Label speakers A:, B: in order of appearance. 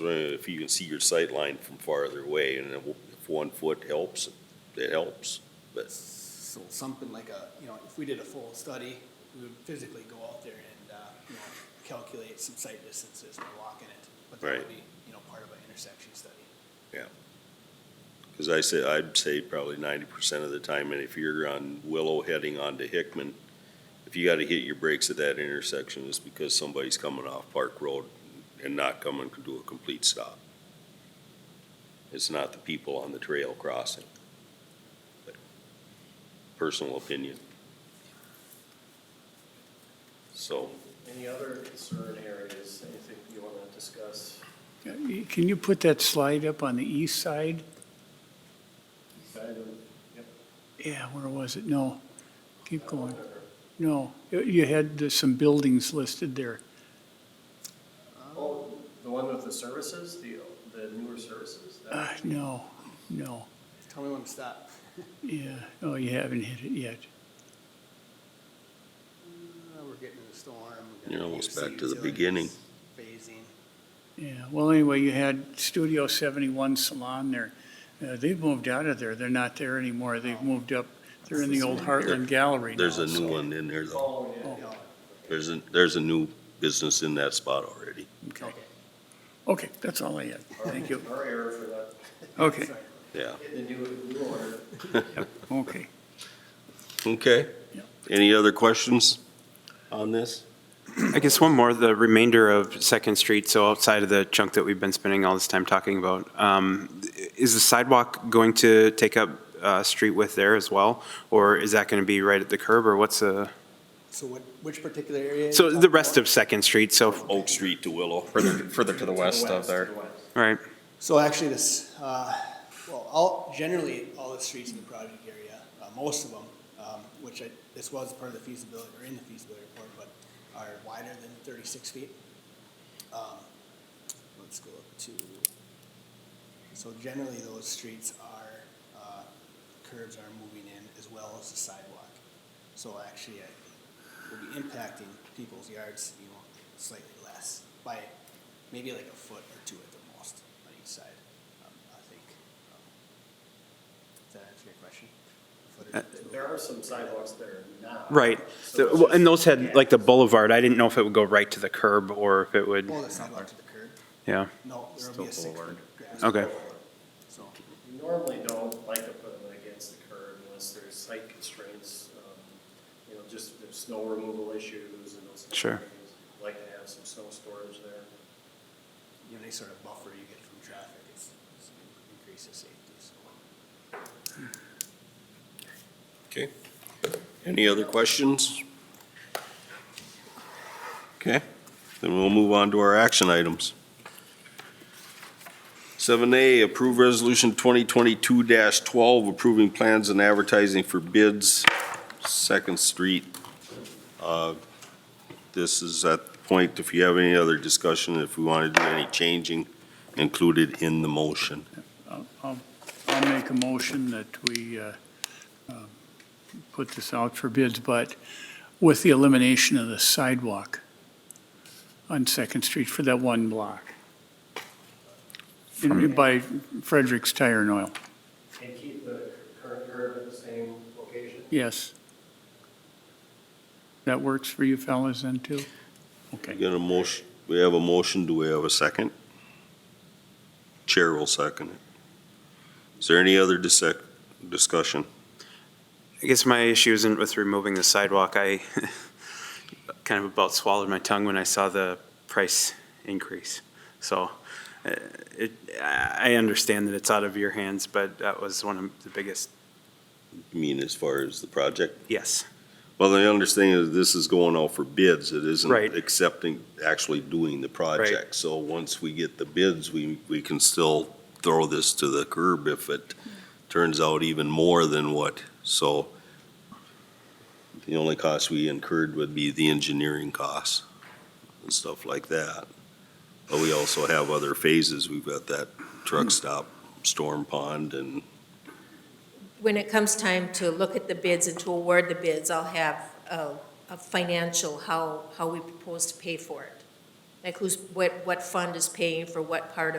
A: wondering if you can see your sight line from farther away, and if one foot helps, it helps, but.
B: So something like a, you know, if we did a full study, we would physically go out there and, uh, you know, calculate some sight distances by walking it. But that
A: Right.
B: would be, you know, part of an intersection study.
A: Because I say, I'd say probably ninety percent of the time, and if you're on Willow heading onto Hickman, if you gotta hit your brakes at that intersection, it's because somebody's coming off Park Road and not coming to a complete stop. It's not the people on the trail crossing. But Personal opinion. So,
C: Any other concern areas, anything you want to discuss?
D: Can you put that slide up on the east side? Yeah, where was it? No. Keep going. No, you- you had the- some buildings listed there.
C: Oh, the one with the services, the, the newer services? that-
D: Uh, no, no.
B: Tell me when to stop.
D: Yeah, oh, you haven't hit it yet.
B: Uh, We're getting in the storm. we're gonna
A: You're almost
B: do
A: back to the
B: utilities,
A: beginning.
B: Phasing.
D: Yeah, well, anyway, you had Studio 71 Salon there. Uh, they've moved out of there. They're not there anymore. They've moved up, they're in the old Heartland Gallery now.
A: there's a
D: so-
A: new one in there though.
C: Oh, yeah.
B: You know,
A: There's a, there's a new business in that spot already.
D: Okay, Okay, that's all I had. Thank you.
C: Our error for that,
D: Okay,
B: sorry.
A: Yeah,
C: the new, new order.
D: okay.
A: okay.
D: Yep.
A: Any other questions on this?
E: I guess one more, the remainder of Second Street, so outside of the chunk that we've been spending all this time talking about, um, is the sidewalk going to take up uh, street width there as well? Or is that going to be right at the curb, or what's the,
B: So what, which particular area?
E: so the rest of Second Street, so, all
A: Oak Street to Willow.
F: Further, further to the west of
C: to
F: there.
C: the west.
E: right,
B: So actually this, uh, well, all, generally, all the streets in the project area, uh, most of them, um, which I, this was part of the feasibility, or in the feasibility report, but are wider than thirty-six feet. Um, Let's go up to, so generally those streets are, uh, curves are moving in as well as the sidewalk. So actually, it would be impacting people's yards, you know, slightly less by maybe like a foot or two at the most on each side, um, I think. Um, Does that answer your question? A foot or
E: Uh,
B: two.
C: There are some sidewalks there now.
E: right.
C: So
E: The-
C: it's
E: well, And
C: just-
E: those had, like, the boulevard, I didn't know if it would go right to the curb, or if it would,
B: Pull the sidewalk to the curb.
E: yeah,
B: No, there will be a six-foot grass.
E: Okay.
B: So,
C: We Normally don't like to put them against the curb unless there's site constraints, um, you know, just there's snow removal issues and those. kind of
E: Sure.
C: things. Like to have some snow storage there.
B: you know, any sort of buffer you get from traffic is is increases safety, so.
A: Okay. Any other questions? Okay, then we'll move on to our action items. Seven A, approve resolution twenty twenty-two twelve, approving plans and advertising for bids, Second Street. Uh, This is at the point, if you have any other discussion, if we want to do any changing, included in the motion.
D: I'll- I'll I'll make a motion that we uh, um, put this out for bids, but with the elimination of the sidewalk on Second Street for that one block. In- By Frederick's Tire and Oil,
C: And keep the current curb at the same location.
D: yes. That works for you fellas then, too?
A: We
D: Okay,
A: got a motion, we have a motion, do we have a second? Chair will second it. Is there any other dissec, discussion?
E: I guess my issue isn't with removing the sidewalk. I kind of about swallowed my tongue when I saw the price increase. So uh, it, I I understand that it's out of your hands, but that was one of the biggest,
A: I mean, as far as the project?
E: yes.
A: Well, the understanding is this is going out for bids, it isn't
E: Right.
A: accepting, actually doing the project. So once we get the bids, we, we can still throw this to the curb if it turns out even more than what, so the only cost we incurred would be the engineering costs and stuff like that. But we also have other phases, we've got that truck stop, storm pond, and
G: When it comes time to look at the bids and to award the bids, I'll have a, a financial, how, how we propose to pay for it. Like who's, what, what fund is paying for what part of